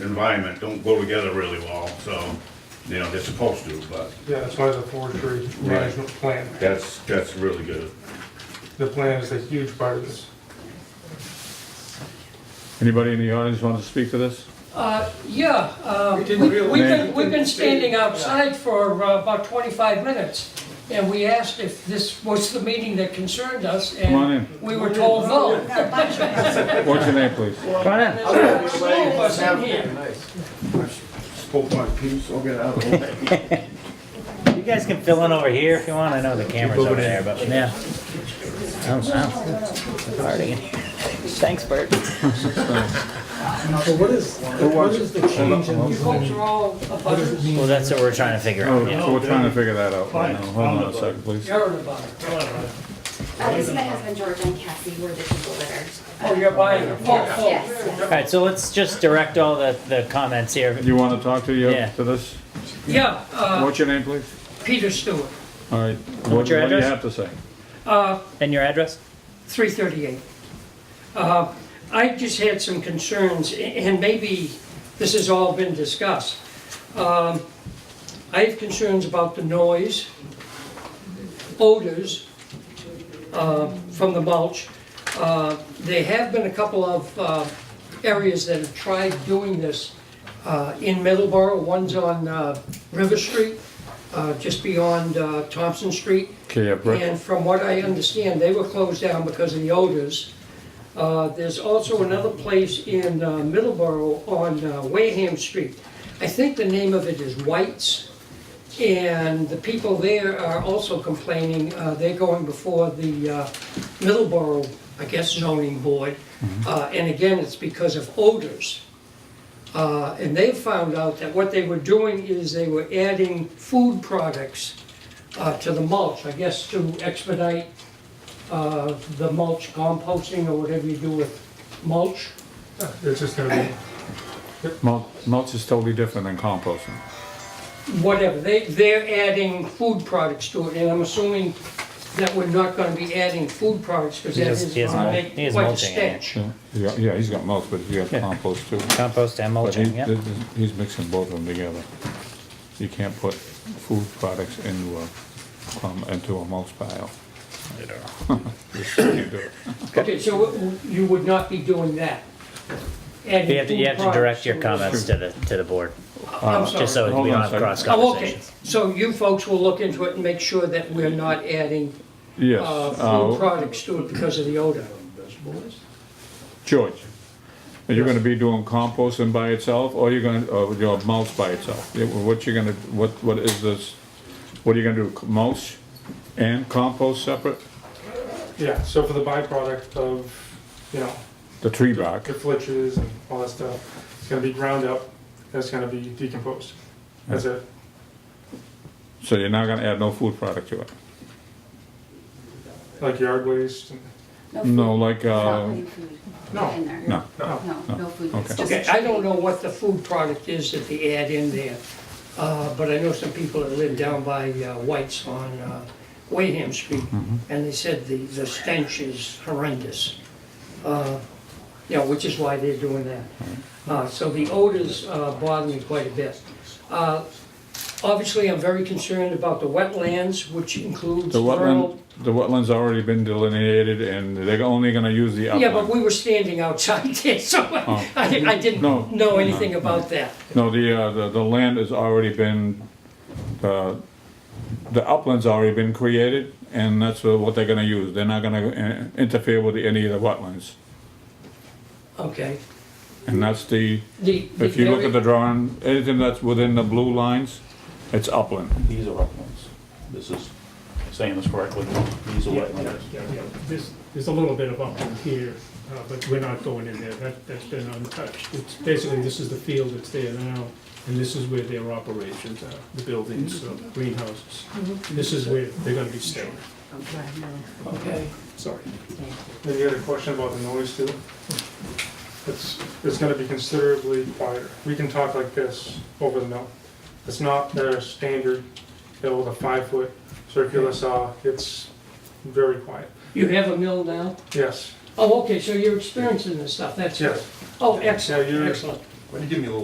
environment don't go together really well, so, you know, they're supposed to, but Yeah, that's why there's a forestry management plan. that's, that's really good. The plan is a huge part of this. Anybody in the audience want to speak to this? Uh, Yeah, uh, we- didn't we've realize- been, we've been standing outside for uh, about 25 minutes, and we asked if this was the meeting that concerned us, Come on and in. we were told no. What's your name, please? Come on in. There's two of us in here. Spoke my piece, I'll get out of the way. You guys can fill in over here if you want. I know the camera's over there, but yeah. Oh, wow. Party in here. Thanks, Bert. So what is, what is the change in, You folks are all abutters, Well, that's what we're trying to figure Oh, out. yeah. so we're trying to figure that out right now. Hold on a second, please. you're an abutter. Uh, this is my husband George and Cassie, we're the people that are. Oh, you're buying a folk, Yes, folk. All right, so let's just direct all the, the comments here. You want to talk to you, Yeah. to this? Yeah, uh, What's your name, please? Peter Stewart, All right. What What's your what do you address? have to say? uh, And your address? 338. Uh, I just had some concerns, a- and maybe this has all been discussed. Um, I have concerns about the noise, odors uh, from the mulch. Uh, There have been a couple of uh, areas that have tried doing this uh, in Middleborough. One's on uh, River Street, uh, just beyond uh, Thompson Street. Okay, yeah, Brett. And from what I understand, they were closed down because of the odors. Uh, There's also another place in uh, Middleborough on uh, Wareham Street. I think the name of it is White's. And the people there are also complaining, uh, they're going before the uh, Middleborough, I guess zoning board. Uh, And again, it's because of odors. Uh, And they found out that what they were doing is they were adding food products uh, to the mulch, I guess to expedite uh, the mulch composting or whatever you do with mulch. It's just gonna be, Mul- Mulch is totally different than composting. Whatever, they, they're adding food products to it, and I'm assuming that we're not gonna be adding food products, because He that is- is he is gonna mul- make he is quite a mulching it. stench. Yeah, Yeah, yeah, he's got mulch, but he got compost too. Compost and But he- mulching, yeah. th- th- He's mixing both of them together. You can't put food products into a, um, into a mulch pile. Just can't do it. Okay, so w- w- you would not be doing that? You have to, you have to direct your comments comments. to the, to the board, I'm sorry. just so Hold on we a don't have second. cross Oh, okay, conversations. so you folks will look into it and make sure that we're not adding Yes, uh, uh, food products to it because of the odor. George, are you gonna be doing composting by itself, or you're gonna, or your mulch by itself? Yeah, well, What you gonna, what, what is this, what are you gonna do, mulch and compost separate? yeah, so for the byproduct of, you know, The tree bark, the flitches and all that stuff, it's gonna be ground up, and it's gonna be decomposed. That's it. so you're not gonna add no food product to it? Like yard waste, and No, like, Not uh, putting food No, in there. no. No, no food. It's Okay. just Okay, I don't know what the food product is that they add in there, uh, but I know some people that live down by uh, White's on uh, Wayham Street, Mm-hmm. and they said the, the stench is horrendous. Uh, You know, which is why they're doing that. Uh, So the odors uh, bother me quite a bit. Uh, Obviously, I'm very concerned about the wetlands, which includes the wetland, vernal. the wetland's already been delineated, and they're only gonna use the Yeah, but upland. we were standing outside there, so I, I didn't Oh. No, know anything about that. No, the, uh, the, the land has already been, uh, the upland's already been created, and that's what they're gonna use. They're not gonna uh, interfere with any of the wetlands. Okay. And that's the, The, the if you look very- at the drawing, anything that's within the blue lines, it's upland. These are wetlands. This is, saying this correctly, these are Yeah, wetlands. yeah, yeah. There's, there's a little bit of upland here, uh, but we're not going in there, that, that's been untouched. It's basically, this is the field that's there now, and this is where their operations are, the buildings, uh, greenhouses. This is where they're gonna be staying, Okay. sorry. then you had a question about the noise too. It's, it's gonna be considerably quieter. We can talk like this over the mill. It's not their standard mill with a five-foot circular saw, it's very quiet. You have a mill now? Yes, Oh, okay, so you're experiencing this stuff, that's. yes. Oh, excellent, Yeah, you're- excellent. Why do you give me a little